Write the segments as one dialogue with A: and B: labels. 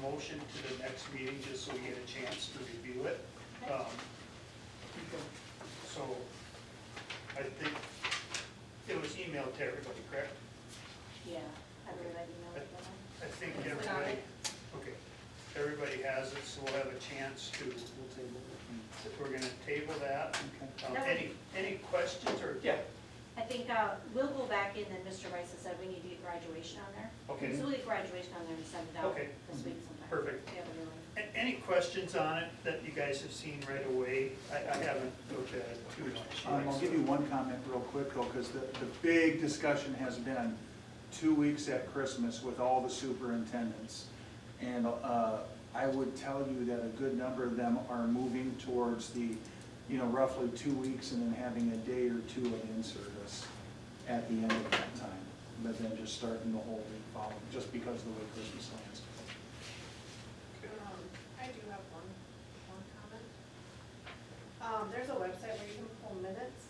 A: motion to the next meeting, just so we get a chance to review it. Um, So, I think it was emailed to everybody, correct?
B: Yeah, I believe I emailed it to them.
A: I think
B: It's got
A: everybody,
B: it.
A: okay, everybody has it, so we'll have a chance to, we're gonna table that. Um,
B: That would-
A: Any, any questions or?
C: Yeah,
B: I think, uh, we'll go back in, and Mr. Rice has said we need to get graduation on there.
A: Okay.
B: So we'll get graduation on there and send it out
A: Okay. Mm-hmm.
B: this week sometime.
A: Perfect.
B: We have a new one.
A: A- Any questions on it that you guys have seen right away? I, I haven't looked at it too much.
D: Um, I'll give you one comment real quick though, because the, the big discussion has been two weeks at Christmas with all the superintendents. And, uh, I would tell you that a good number of them are moving towards the, you know, roughly two weeks and then having a day or two of in-service at the end of that time. But then just starting the whole week following, just because of the way Christmas lands.
E: Um, I do have one, one comment. Um, there's a website where you can pull minutes,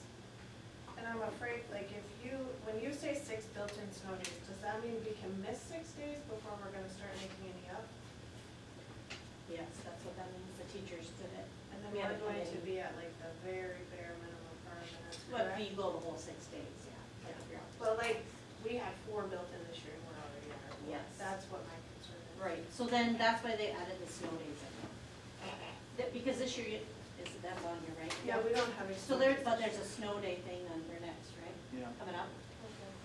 E: and I'm afraid, like, if you, when you say six built-in snow days, does that mean we can miss six days before we're gonna start making any up?
B: Yes, that's what that means, the teachers did it.
E: And then
B: We
E: we're
B: haven't done
E: going to
B: any.
E: be at like the very bare minimum for our minutes,
B: But
E: correct?
B: we go the whole six days, yeah. yeah.
E: But like, we had four built-in this year, and we're already at our four.
B: Yes.
E: That's what my concern is.
B: Right, so then that's why they added the snow days in. That- Because this year, you- is, that's on your right?
E: Yeah, we don't have a.
B: So there, but there's a snow day thing on your next, right,
D: Yeah.
B: coming up?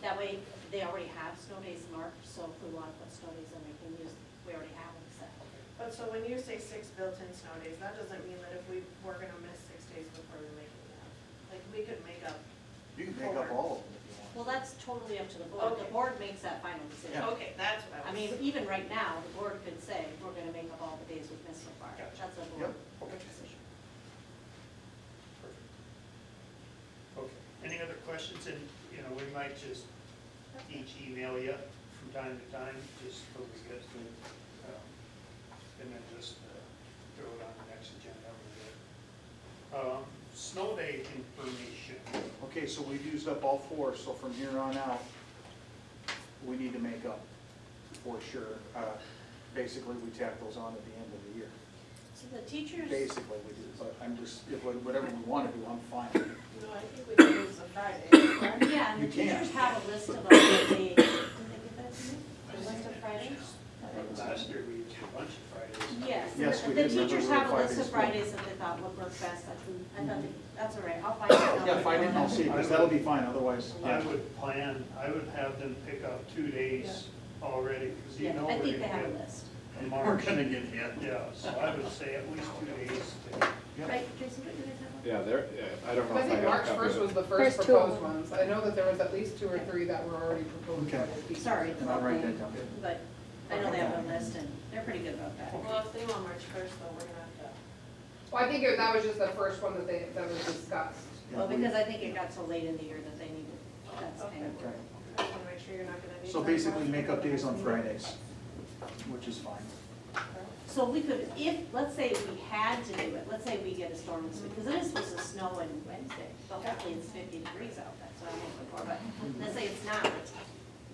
B: That way, they already have snow days marked, so if we want to put snow days in, we can use, we already have them set.
E: But so when you say six built-in snow days, that doesn't mean that if we were gonna miss six days before we make it up. Like, we could make up.
D: You can make up all of them if you want.
B: Well, that's totally up to the board, the
E: Okay.
B: board makes that final decision.
D: Yeah.
E: Okay, that's what
B: I mean, even right now, the board could say, we're gonna make up all the days we've missed so far,
A: Gotcha.
B: that's a
D: Yep.
B: board board decision.
A: Perfect. Okay, any other questions, and, you know, we might just each email you from time to time, just so we get to, um, and then just uh, throw it on the next agenda over there. Um, Snow day information,
D: Okay, so we've used up all four, so from here on out, we need to make up for sure. Uh, Basically, we tack those on at the end of the year.
B: So the teachers.
D: Basically, we do, but I'm just, if we- whatever we want to do, I'm fine.
E: No, I think we could use the Friday. correct?
B: Yeah, and the
D: You can.
B: teachers have a list of all the, did they get that to me? The list of Fridays?
A: last year we did a bunch of Fridays.
B: Yes.
D: Yes,
B: the-
D: we
B: The
D: did, remember
B: teachers
D: we were
B: have a list of
D: Fridays.
B: Fridays that they thought would work best, I think, I thought, they- that's all right, I'll find it.
D: Yeah, find it and I'll see, because that'll be fine, otherwise.
B: Mm-hmm.
A: I
D: uh,
A: would plan, I would have them pick up two days already, because you
B: Yeah,
A: know
B: I
A: we're
B: think they have
A: gonna
B: a
A: get
B: list,
A: a
D: We're
A: March.
D: gonna get hit.
A: Yeah, so I would say at least two days to
D: Yep.
B: right, Jason, what do you guys have?
F: Yeah, there, yeah, I don't know
G: I
F: if I have
G: think
F: a
G: March
F: copy of
G: first
F: it.
G: was the first
H: First two of them.
G: proposed ones. I know that there was at least two or three that were already proposed.
D: Okay.
B: Sorry.
D: And I'll write that down.
B: But I know they have a list and they're pretty good about that.
E: Well, if they want March first, though, we're gonna have to.
G: Well, I think it- that was just the first one that they, that was discussed.
D: Yeah,
B: Well,
D: we-
B: because I think it got so late in the year that they needed, that's kind of.
D: Okay.
E: I just wanna make sure you're not gonna need.
D: So basically, make up days on Fridays, which is fine.
B: So we could, if, let's say we had to do it, let's say we get a storm this week, because it is supposed to snow on Wednesday, but hopefully it's fifty degrees out, that's what I'm hoping for, but let's say it's not,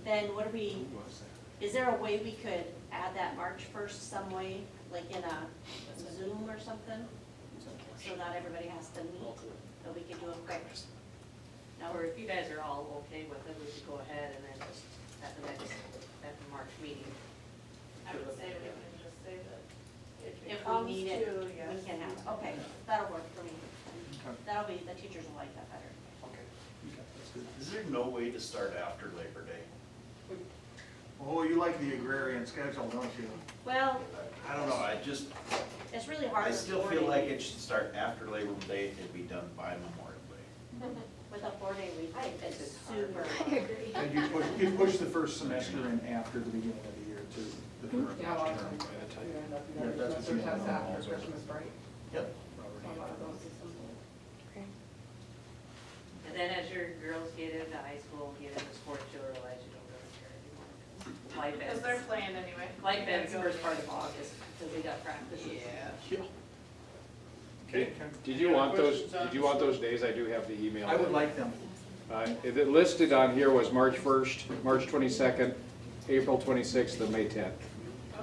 B: then what do we, is there a way we could add that March first some way, like in a Zoom or something? So not everybody has to meet, but we could do it quick. Now,
I: Or if you guys are all okay with it, we could go ahead and then at the next, at the March meeting.
E: I would say we can just say that.
B: if we
E: comes
B: need it,
E: to,
B: we
E: yes.
B: can have, okay, that'll work for me.
D: Okay.
B: That'll be, the teachers will like that better.
J: Is there no way to start after Labor Day?
D: Oh, you like the agrarian schedule, don't you?
B: Well,
J: I don't know, I just,
B: it's really hard.
J: I
B: with
J: still
B: four
J: feel like
B: day-
J: it should start after Labor Day and be done by Memorial Day.
B: With a four-day week,
I: I
B: it's
I: think it's
B: super.
H: I agree.
D: And you push, you push the first semester in after the beginning of the year to the current.
G: Yeah, a lot of
D: term.
G: times. you end up,
D: Yeah,
G: you know,
D: that's what
G: semester
D: you
G: tests
D: know.
G: after Christmas break.
J: Yep.
G: So a lot of those systems will-
I: And then as your girls get into high school, get into sports, you'll realize you don't really care anymore. Life
E: Because they're
I: ends,
E: playing anyway.
I: life ends first part of August, because they got practice.
E: Yeah.
F: Did- Did you want those, did you want those days? I do have the email.
D: I would like them.
F: Uh, it listed on here was March first, March twenty-second, April twenty-sixth, and May tenth.